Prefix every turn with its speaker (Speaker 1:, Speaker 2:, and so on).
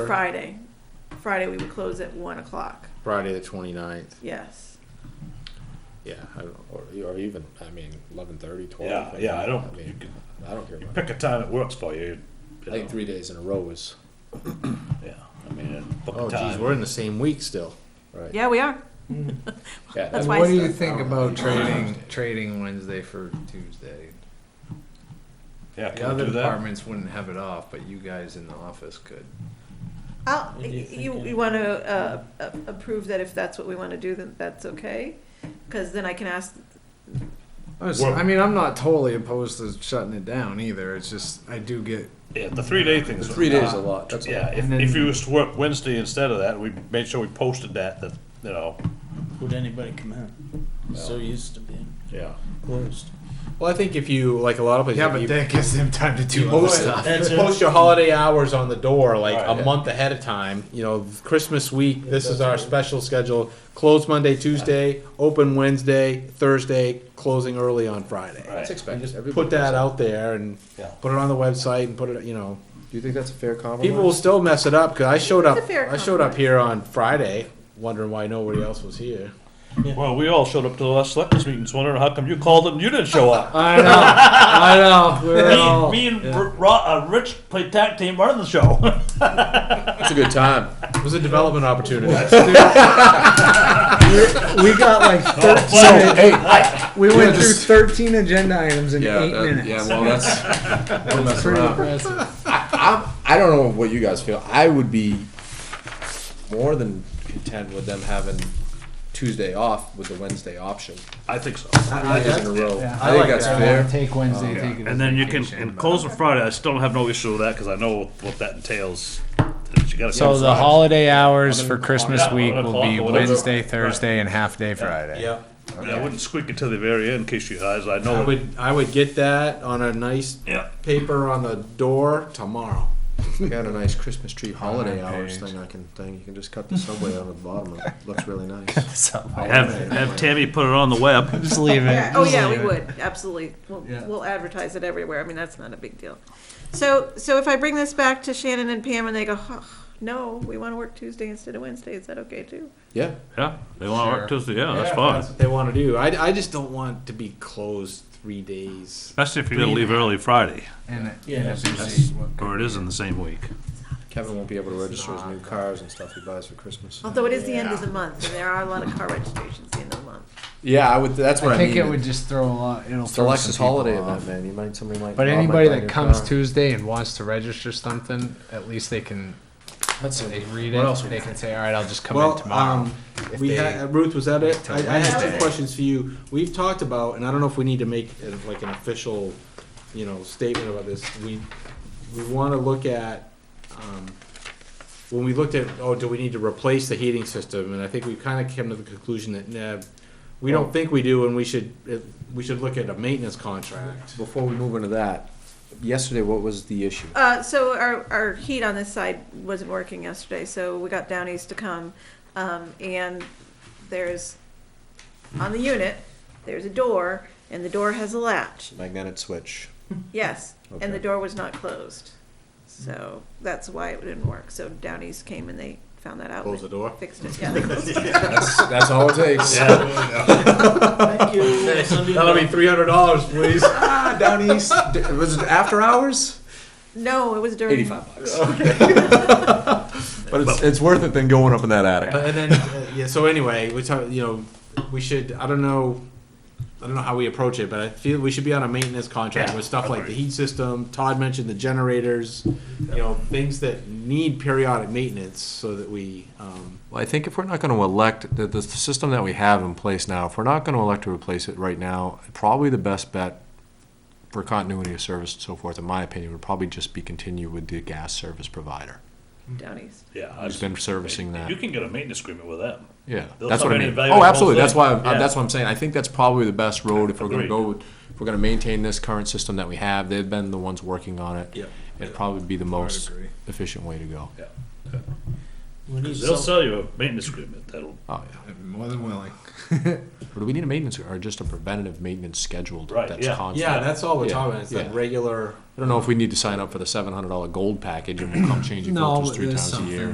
Speaker 1: Friday. Friday we would close at one o'clock.
Speaker 2: Friday the 29th.
Speaker 1: Yes.
Speaker 2: Yeah, I don't, or, or even I mean 11:30, 12.
Speaker 3: Yeah, yeah, I don't,
Speaker 2: I
Speaker 3: you
Speaker 2: mean,
Speaker 3: can
Speaker 2: I don't care about. It.
Speaker 3: pick a time that works for you.
Speaker 2: I
Speaker 3: you
Speaker 2: think
Speaker 3: know.
Speaker 2: three days in a row is.
Speaker 3: Yeah, I mean, uh, book
Speaker 2: Oh,
Speaker 3: a
Speaker 2: geez,
Speaker 3: time.
Speaker 2: we're in the same week still, right?
Speaker 1: Yeah, we are.
Speaker 2: Yeah,
Speaker 1: That's
Speaker 2: that-
Speaker 1: why
Speaker 4: What do
Speaker 1: it's
Speaker 4: you
Speaker 1: the-
Speaker 4: think
Speaker 2: Oh,
Speaker 4: about
Speaker 2: Tuesday.
Speaker 4: trading, trading Wednesday for Tuesday?
Speaker 3: yeah,
Speaker 4: The
Speaker 3: can we
Speaker 4: other
Speaker 3: do that?
Speaker 4: departments wouldn't have it off, but you guys in the office could.
Speaker 1: I'll,
Speaker 3: What do you think,
Speaker 1: you,
Speaker 3: Ann?
Speaker 1: you want to uh, a- approve that if that's what we want to do, then that's okay? Because then I can ask,
Speaker 4: I was-
Speaker 3: Well-
Speaker 4: I mean, I'm not totally opposed to shutting it down either. It's just, I do get,
Speaker 3: Yeah, the three day thing is.
Speaker 2: The three days is a
Speaker 3: uh,
Speaker 2: lot, that's a
Speaker 3: Yeah,
Speaker 2: lot.
Speaker 3: if,
Speaker 4: And
Speaker 3: if
Speaker 4: then-
Speaker 3: you was to work Wednesday instead of that, we made sure we posted that, that, you know.
Speaker 5: Would anybody come in? So used to being
Speaker 3: Yeah.
Speaker 5: closed.
Speaker 2: Well, I think if you like a lot of places,
Speaker 4: yeah,
Speaker 2: if
Speaker 4: but
Speaker 2: you,
Speaker 4: that gives them time to
Speaker 2: you
Speaker 4: do other
Speaker 2: post,
Speaker 4: stuff.
Speaker 5: That's
Speaker 2: you
Speaker 5: it.
Speaker 2: post your holiday hours on the door like
Speaker 3: Right,
Speaker 2: a
Speaker 3: yeah.
Speaker 2: month ahead of time. You know, Christmas week. This is our special schedule. Close Monday, Tuesday, open Wednesday, Thursday, closing early on Friday.
Speaker 3: Right. That's
Speaker 2: expected. Just put that out there and
Speaker 3: Yeah.
Speaker 2: put it on the website and put it. You know.
Speaker 6: Do you think that's a fair compromise?
Speaker 2: People will still mess it up because I showed up.
Speaker 1: It's a fair
Speaker 2: I showed up
Speaker 1: compromise.
Speaker 2: here on Friday, wondering why nobody else was here.
Speaker 3: Well, we all showed up to the last selectors meetings wondering how come you called it and you didn't show up?
Speaker 4: I know, I know. We're all,
Speaker 5: Me, me and
Speaker 4: yeah.
Speaker 5: Br- Ro- uh, Rich played tag team running the show.
Speaker 2: It's a good time. It was a development opportunity.
Speaker 7: We got like thirteen. we went through
Speaker 6: just-
Speaker 7: thirteen agenda items in eight
Speaker 6: that-
Speaker 7: minutes.
Speaker 6: Yeah, well, that's we're messing
Speaker 7: pretty
Speaker 6: around. I'm, I don't know what you guys feel. I would be
Speaker 2: More than content with them having Tuesday off with the Wednesday option.
Speaker 3: I think so.
Speaker 2: Nine days in a row.
Speaker 7: yeah.
Speaker 6: I think that's
Speaker 4: that.
Speaker 6: fair.
Speaker 4: Take Wednesday, take it as
Speaker 3: And then you can,
Speaker 4: vacation,
Speaker 3: and
Speaker 4: but-
Speaker 3: close on Friday, I still don't have no issue with that, cause I know what that entails. You gotta
Speaker 8: So
Speaker 3: come
Speaker 8: the
Speaker 3: Friday.
Speaker 8: holiday hours for Christmas
Speaker 3: Yeah,
Speaker 8: week
Speaker 3: eleven
Speaker 8: will be
Speaker 3: o'clock or whatever.
Speaker 8: Wednesday,
Speaker 3: Right.
Speaker 8: Thursday, and half day Friday.
Speaker 2: Yeah.
Speaker 3: Yeah, I wouldn't squeak it to the very end in case you guys, I
Speaker 2: I
Speaker 3: know. it-
Speaker 2: would I would get that on a nice
Speaker 3: Yeah.
Speaker 2: paper on the door tomorrow.
Speaker 6: got a nice Christmas tree holiday
Speaker 8: Front
Speaker 6: hours
Speaker 8: page.
Speaker 6: thing. I can thing. You can just cut the subway out of the bottom. It looks really nice.
Speaker 8: So
Speaker 3: Have, have Tammy put it on the web.
Speaker 8: just leave it.
Speaker 1: oh
Speaker 8: just
Speaker 1: yeah, we
Speaker 8: leave it.
Speaker 1: would, absolutely. We'll, we'll advertise it everywhere. I mean, that's not a big deal. So, so if I bring this back to Shannon and Pam and they go, "Huh, no, we want to work Tuesday instead of Wednesday, is that okay too?
Speaker 2: Yeah.
Speaker 3: Yeah, they wanna work Tuesday, yeah, that's
Speaker 2: Yeah,
Speaker 3: fine.
Speaker 2: That's what they want to do. I, I just don't want to be closed three days.
Speaker 3: Especially if you're gonna leave early Friday,
Speaker 4: And,
Speaker 5: Yeah.
Speaker 3: or it is in the same week.
Speaker 6: Kevin won't be able to register his new cars and stuff he buys for Christmas.
Speaker 1: Although it is the end of the month and there are a lot of car registrations the end of the month.
Speaker 2: Yeah, I would. That's what
Speaker 4: I
Speaker 2: I,
Speaker 4: think
Speaker 2: mean.
Speaker 4: it would just throw a lot. It'll
Speaker 6: It's
Speaker 4: throw
Speaker 6: Alexa's
Speaker 4: some people
Speaker 6: holiday
Speaker 4: off.
Speaker 6: event, man. You might somebody might.
Speaker 4: But
Speaker 6: Bob might
Speaker 4: anybody
Speaker 6: buy a
Speaker 4: that
Speaker 6: new
Speaker 4: comes
Speaker 6: car.
Speaker 4: Tuesday and wants to register something, at least they can
Speaker 2: That's
Speaker 4: they
Speaker 2: it.
Speaker 4: read
Speaker 2: What
Speaker 4: it.
Speaker 2: else we
Speaker 4: They
Speaker 2: got?
Speaker 4: can say, "All right, I'll just come
Speaker 2: well,
Speaker 4: in tomorrow."
Speaker 2: Um,
Speaker 4: if
Speaker 2: we
Speaker 4: they-
Speaker 2: had, Ruth, was that it?
Speaker 4: till
Speaker 2: I, I had
Speaker 1: Wednesday.
Speaker 2: two questions for you. We've talked about, and I don't know if we need to make it like an official, you know, statement about this. We we want to look at um, when we looked at oh, do we need to replace the heating system? And I think we kind of came to the conclusion that nah, we don't think we do, and we should it, we should look at a maintenance contract.
Speaker 6: Before we move into that, yesterday what was the issue?
Speaker 1: Uh, so our, our heat on this side wasn't working yesterday, so we got down east to come, um, and there's, on the unit, there's a door, and the door has a latch,
Speaker 6: Magnetic switch.
Speaker 1: yes, and the
Speaker 6: Okay.
Speaker 1: door was not closed. So that's why it didn't work, so down east came and they found that out. and
Speaker 2: Close the door?
Speaker 1: Fixed it, yeah, they closed it.
Speaker 6: That's, that's all it takes.
Speaker 5: Thank you. Sunday
Speaker 2: That'll be
Speaker 5: night.
Speaker 2: three hundred dollars, please.
Speaker 6: Ah, down east. D- Was it after hours?
Speaker 1: No, it was during.
Speaker 6: Eighty-five bucks. but it's, it's worth it than going up in that attic.
Speaker 2: But, and then uh, yeah. So anyway, we talk. You know, we should. I don't know. I don't know how we approach it, but I feel we should be on a maintenance contract
Speaker 3: Yeah,
Speaker 2: with stuff like the
Speaker 3: agreed.
Speaker 2: heat system. Todd mentioned the generators. You know, things that need periodic maintenance so that we. Um,
Speaker 6: Well, I think if we're not going to elect the, the system that we have in place now, if we're not going to elect to replace it right now, probably the best bet for continuity of service and so forth, in my opinion, would probably just be continue with the gas service provider
Speaker 1: Down east.
Speaker 3: Yeah. I
Speaker 6: who's
Speaker 3: just-
Speaker 6: been servicing that.
Speaker 3: You can get a maintenance agreement with them.
Speaker 6: Yeah,
Speaker 3: They'll
Speaker 6: that's what
Speaker 3: come
Speaker 6: I
Speaker 3: in and
Speaker 6: mean.
Speaker 3: evaluate
Speaker 6: Oh,
Speaker 3: the
Speaker 6: absolutely.
Speaker 3: whole
Speaker 6: That's why,
Speaker 3: thing. Yeah.
Speaker 6: I- that's what I'm saying. I think that's probably the best road if we're gonna
Speaker 3: Agreed.
Speaker 6: go, with- if we're gonna maintain this current system that we have. They've been the ones working on it.
Speaker 2: Yep.
Speaker 6: It'd probably be the most
Speaker 4: agree.
Speaker 6: efficient way to go.
Speaker 5: We need
Speaker 3: They'll
Speaker 5: some-
Speaker 3: sell you a maintenance agreement that'll
Speaker 6: Oh, yeah.
Speaker 4: I'd be more than willing.
Speaker 6: Or do we need a maintenance, or just a preventative maintenance schedule
Speaker 3: Right,
Speaker 6: that's
Speaker 3: yeah.
Speaker 6: constant?
Speaker 2: Yeah, that's all we're
Speaker 6: Yeah,
Speaker 2: talking about. It's that
Speaker 6: yeah.
Speaker 2: regular.
Speaker 6: I don't know if we need to sign up for the seven hundred dollar gold package and we'll come changing
Speaker 4: No,
Speaker 6: filters three
Speaker 4: there's
Speaker 6: times a year.
Speaker 4: something.